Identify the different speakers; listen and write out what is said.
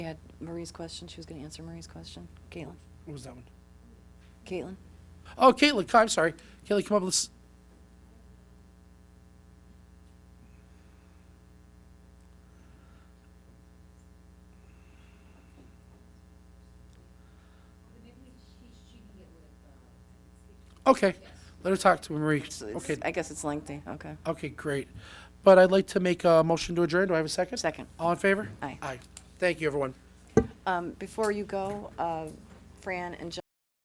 Speaker 1: We had Marie's question, she was going to answer Marie's question. Caitlin?
Speaker 2: What was that one?
Speaker 1: Caitlin?
Speaker 2: Oh, Caitlin, come- I'm sorry. Caitlin, come up with this. Okay, let her talk to Marie.
Speaker 1: So it's-
Speaker 2: Okay,
Speaker 1: I guess it's lengthy, okay.
Speaker 2: okay, great. But I'd like to make a motion to adjourn. Do I have a second?
Speaker 1: Second.
Speaker 2: All in favor?
Speaker 1: Aye.
Speaker 2: Aye. Thank you, everyone.
Speaker 1: Um, Before you go, uh, Fran and John